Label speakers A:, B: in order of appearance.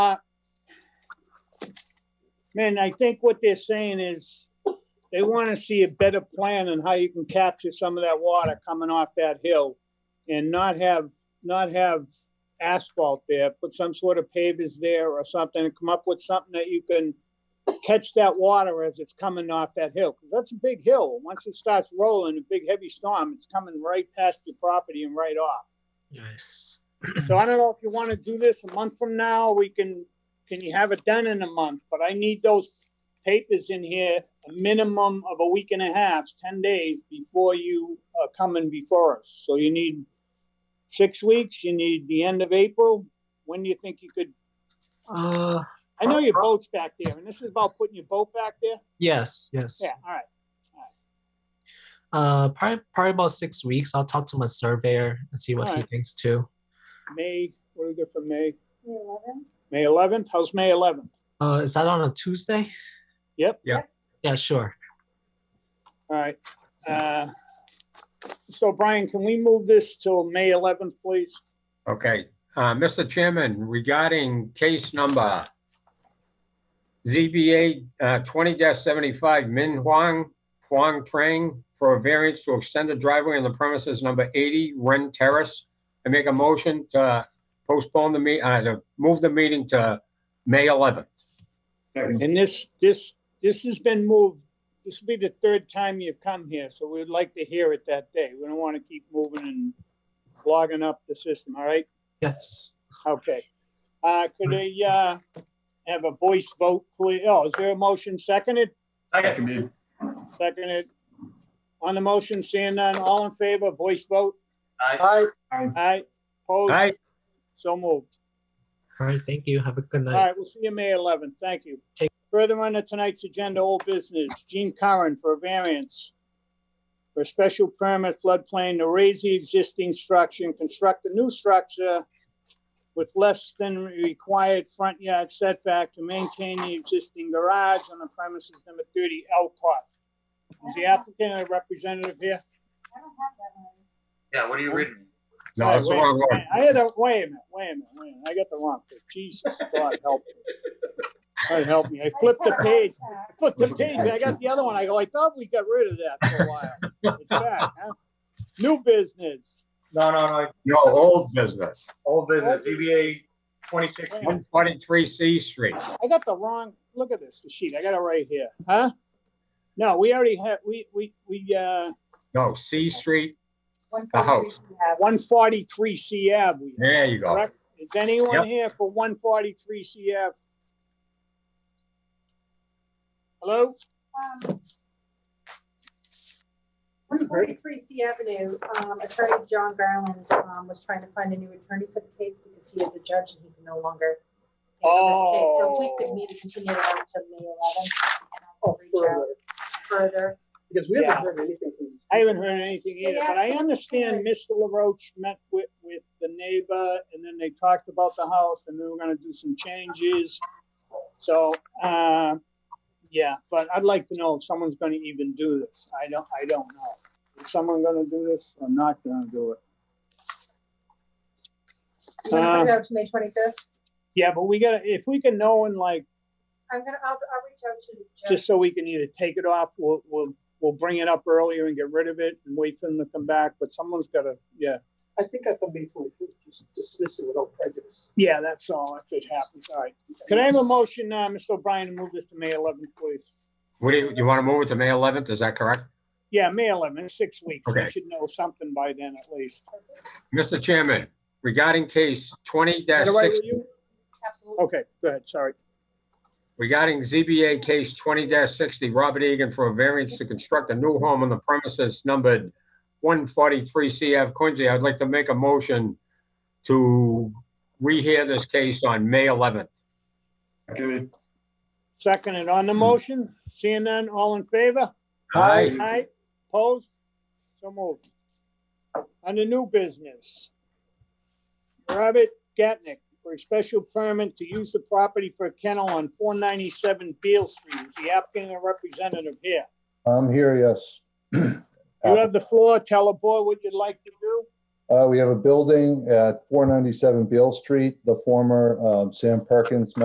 A: Man, I think what they're saying is they want to see a better plan on how you can capture some of that water coming off that hill and not have, not have asphalt there, put some sort of pavers there or something and come up with something that you can catch that water as it's coming off that hill. Cause that's a big hill. Once it starts rolling, a big heavy storm, it's coming right past your property and right off.
B: Yes.
A: So I don't know if you want to do this a month from now, we can, can you have it done in a month? But I need those papers in here, a minimum of a week and a half, ten days before you are coming before us. So you need six weeks, you need the end of April. When do you think you could,
B: Uh,
A: I know your boat's back there, and this is about putting your boat back there?
B: yes, yes.
A: Yeah, all right.
B: Uh, probably, probably about six weeks. I'll talk to my surveyor and see what he
A: Alright.
B: thinks too.
A: May, what do we got for May? May
C: May 11th?
A: eleventh? How's May eleventh?
B: Uh, is that on a Tuesday?
A: Yep.
B: Yeah. Yeah, sure.
A: All right. Uh, So Brian, can we move this till May 11th, please?
D: Okay, uh, Mr. Chairman, regarding case number ZBA uh, twenty seventy-five Min Huang, Huang Trang for a variance to extend the driveway on the premises number eighty Ren Terrace. I make a motion to postpone the me, uh, to move the meeting to May eleventh.
A: And this, this, this has been moved, this will be the third time you've come here, so we'd like to hear it that day. We don't want to keep moving and clogging up the system, all right?
B: Yes.
A: Okay. Uh, Could I uh, have a voice vote, please? Oh, is there a motion seconded?
E: Second, dude.
A: Seconded. On the motion, seeing none, all in favor, voice vote?
E: Aye.
A: Aye. Opposed?
D: Aye,
A: So moved.
B: All right. Thank you. Have a good
A: All
B: night.
A: right, we'll see you May 11th. Thank you.
B: Take-
A: Further on to tonight's agenda, old business, Gene Curran for a variance for a special permit floodplain to raise the existing structure and construct a new structure with less than required front yard setback to maintain the existing garage on the premises number 30 Elcott. Is the applicant a representative here?
C: I don't have that one.
E: Yeah, what are you reading?
D: no, that's the wrong
A: Wait,
D: one.
A: I had a, wait a minute, wait a minute, wait a minute. I got the wrong, page. Jesus, God help me. God help me. I flipped the page. I flipped the page. I got the other one. I go, I thought we got rid of that for a while. It's back, huh? New business.
F: No, no, no,
D: No, old business,
F: old business, ZBA twenty-six,
A: Wait a minute.
D: one forty-three C Street.
A: I got the wrong, look at this, the sheet. I got it right here, huh? No, we already had, we, we, we, uh,
D: No, C Street,
C: One
D: The
C: copy
D: house.
C: we have.
A: one forty-three C Ave. we-
D: there you go.
A: Correct? Is anyone
D: Yep.
A: here for one forty-three C Ave? Hello?
C: Um, 143 C Avenue, um, attorney John Garland um, was trying to find a new attorney for the case because he is a judge and he can no longer. handle this case. So if we
A: Oh.
C: could maybe continue it on to May 11th and I will reach out further.
F: because we haven't heard anything from this.
A: I haven't heard anything either, but I
C: Yeah.
A: understand Mr. LaRoche met with, with the neighbor and then they talked about the house and they were gonna do some changes. So, uh, yeah, but I'd like to know if someone's gonna even do this. I don't, I don't know. Is someone gonna do this or not gonna do it?
C: You want to
D: Uh,
C: put it out to May 25th?
A: Yeah, but we gotta, if we can know in like,
C: I'm gonna, I'll, I'll reach out to Judge.
A: just so we can either take it off, we'll, we'll, we'll bring it up earlier and get rid of it and wait for them to come back, but someone's gotta, yeah.
F: I think I thought May twenty-fifth, just dismiss it without prejudice.
A: Yeah, that's all. That's what happens. All right. Could I have a motion, uh, Mr. O'Brien, to move this to May 11th, please?
D: What do you, you want to move it to May eleventh, is that correct?
A: Yeah, May 11th, six weeks. We
D: Okay.
A: should know something by then at least.
D: Mr. Chairman, regarding case twenty
A: Is that all right
D: six,
A: with you?
C: Absolutely.
A: Okay, go ahead. Sorry.
D: regarding ZBA case twenty sixty, Robert Egan for a variance to construct a new home on the premises numbered one forty-three CF Quincy, I'd like to make a motion to rehear this case on May eleventh.
A: Second and on the motion, seeing none, all in favor?
D: Hmm. Aye.
A: Aye. Opposed? So moved. On the new business. Robert Gatnick for a special permit to use the property for a kennel on 497 Beale Street. Is the applicant a representative here?
G: I'm here, yes.
A: You have the floor. Tell the board what you'd like to do.
G: Uh, we have a building at 497 Beale Street, the former um, Sam Perkins